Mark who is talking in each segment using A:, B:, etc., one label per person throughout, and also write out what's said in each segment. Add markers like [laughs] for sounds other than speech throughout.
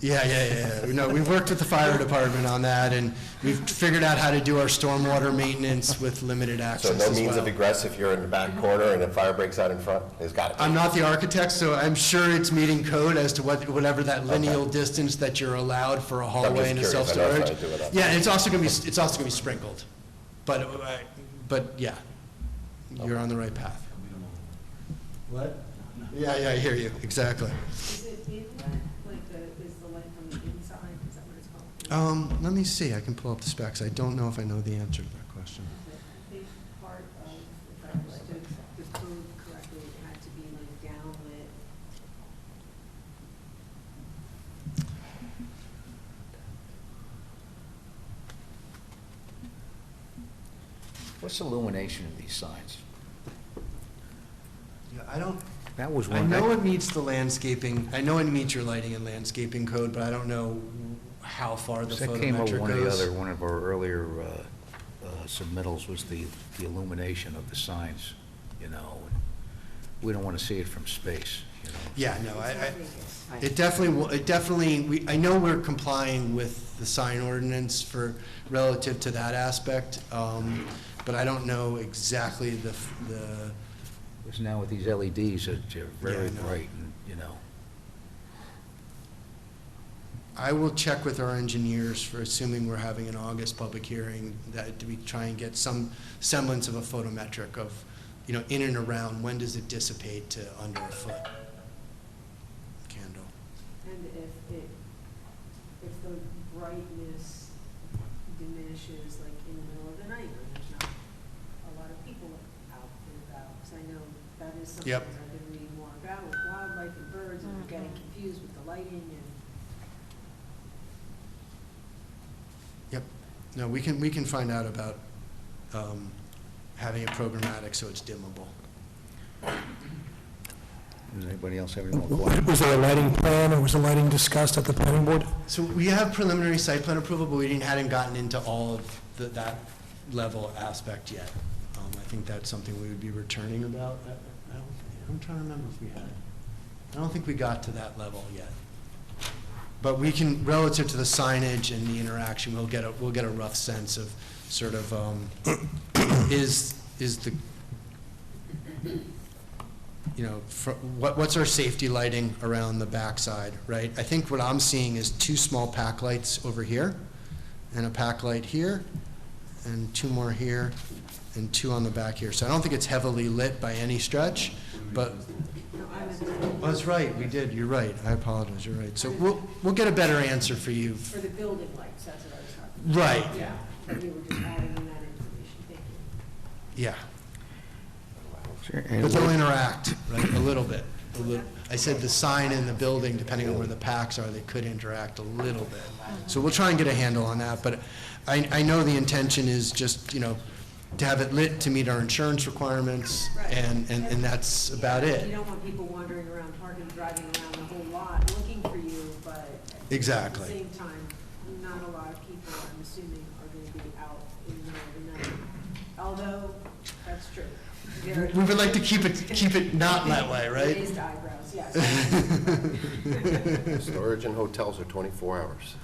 A: Yeah, yeah, yeah. No, we've worked with the fire department on that, and we've figured out how to do our stormwater maintenance with limited access
B: So
A: as
B: no
A: well.
B: means of egress if you're in the back corner and a fire breaks out in front, it's got to
A: I'm not the architect, so I'm sure it's meeting code as to what, whatever that lineal distance that you're allowed for a hallway and a
B: just curious. I know
A: self-storage.
B: it's how I do it up.
A: Yeah, and it's also gonna be, it's also gonna be sprinkled, but, uh, but, yeah, you're on the right path. What? Yeah, yeah, I hear you, exactly.
C: Is it inlet, like the, is the light from the inside, is that what it's called?
A: Um, let me see, I can pull up the specs, I don't know if I know the answer to that question.
C: Is it a big part of, if I understood the code correctly, it had to be like downlit?
D: What's the illumination of these signs?
A: Yeah, I don't,
D: That was
A: I
D: one,
A: know
D: that
A: it meets the landscaping, I know it meets your lighting and landscaping code, but I don't know how far the
D: that came over
A: photometric
D: one of the other,
A: goes.
D: one of our earlier uh, uh, submittals was the the illumination of the signs, you know? and We don't want to see it from space, you know?
A: Yeah, no, I, I,
C: It's outrageous.
A: it definitely, will- it definitely, we, I know we're complying with the sign ordinance for, relative to that aspect, um, but I don't know exactly the, f- the,
D: Because now with these LEDs, that they're
A: Yeah, I
D: very
A: know.
D: bright, and, you know?
A: I will check with our engineers for, assuming we're having an August public hearing, that do we try and get some semblance of a photometric of, you know, in and around, when does it dissipate to under a foot candle?
C: And if it, if the brightness diminishes like in the middle of the night when there's not a lot of people out and about, because I know that is something
A: Yep.
C: that I've been reading more about with wildlife and birds and they're getting confused with the lighting and.
A: Yep. No, we can, we can find out about um, having it programmatic so it's dimmable.
D: Does anybody else have any more questions?
E: Was there a lighting plan, or was the lighting discussed at the planning board?
A: So we have preliminary site plan approval, but we didn't, hadn't gotten into all of the- that level aspect yet. Um, I think that's something we would be returning about. I- I don't- I'm trying to remember if we had. I don't think we got to that level yet. But we can, relative to the signage and the interaction, we'll get a, we'll get a rough sense of sort of, um, [coughs] is, is the, you know, fr- what, what's our safety lighting around the backside, right? I think what I'm seeing is two small pack lights over here, and a pack light here, and two more here, and two on the back here. So I don't think it's heavily lit by any stretch, but,
C: No, I meant
A: oh, that's right, we did, you're right, I apologize, you're right. So we'll, we'll get a better answer for you.
C: for the building lights, that's what I was talking
A: Right,
C: about. Yeah. But you were just adding in that information, thank you.
A: yeah.
D: Sure,
A: But
D: and what-
A: they'll interact, right, a little bit. a lit- I said the sign in the building, depending on where the packs are, they could interact a little bit. So we'll try and get a handle on that, but I, I know the intention is just, you know, to have it lit to meet our insurance requirements,
C: Right.
A: and, and, and that's about
C: You
A: it.
C: don't want people wandering around, parking, driving around the whole lot looking for you, but.
A: Exactly.
C: At the same time, not a lot of people, I'm assuming, are gonna be out in the middle of the night, although, that's true. There-
A: We would like to keep it, keep it not that way, right?
C: Raised eyebrows, yes.
B: Storage in hotels are 24 hours.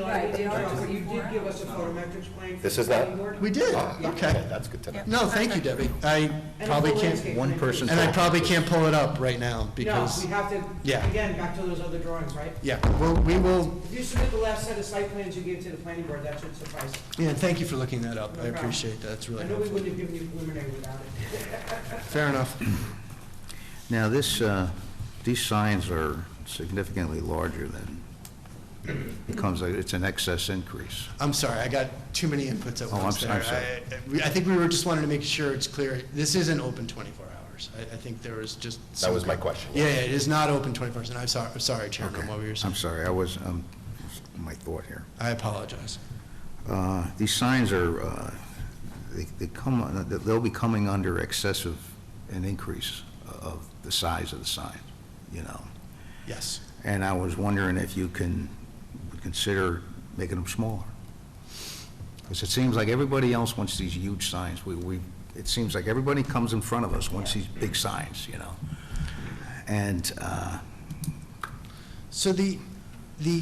C: Right, they are all
F: You did
C: forty-four.
F: give us a photometrics plan for
B: This
F: the
B: is not-
F: planning board?
A: We did,
B: Ah,
A: okay.
B: That's good to know.
A: No, thank you, Debbie. I
F: And a
A: probably
F: full
A: can't,
F: landscape
D: One
F: plan,
D: person-
F: please.
A: and I probably can't pull it up right now,
F: No,
A: [laughs] because,
F: we have to,
A: Yeah.
F: again, back to those other drawings, right?
A: yeah, well, we will,
F: If you submit the last set of site plans you gave to the planning board, that should suffice.
A: Yeah, and thank you for looking that up. I
F: No problem.
A: appreciate that. It's
F: I
A: really
F: know we
A: helpful.
F: wouldn't have given you preliminary without it.
A: Fair enough.
D: Now, this, uh, these signs are significantly larger than, it comes, it's an excess increase.
A: I'm sorry, I got too many inputs at
D: Oh, I'm
A: once
D: so-
A: there.
D: I'm sorry.
A: I- I we- I think we were just wanting to make sure it's clear, this isn't open 24 hours. I, I think there was just.
B: That
A: some-
B: was my question.
A: Yeah, yeah, it is not open 24 hours, and I'm sorry, I'm sorry, Chairman,
D: Okay.
A: what were you
D: I'm
A: saying?
D: sorry, I was, um, my thought here.
A: I apologize.
D: Uh, These signs are, uh, they they come, on- they'll be coming under excessive, an increase of the size of the sign, you know?
A: Yes.
D: And I was wondering if you can consider making them smaller. Because it seems like everybody else wants these huge signs. We, we, it seems like everybody comes in front of us, wants these big signs, you know? And, uh,
A: So the,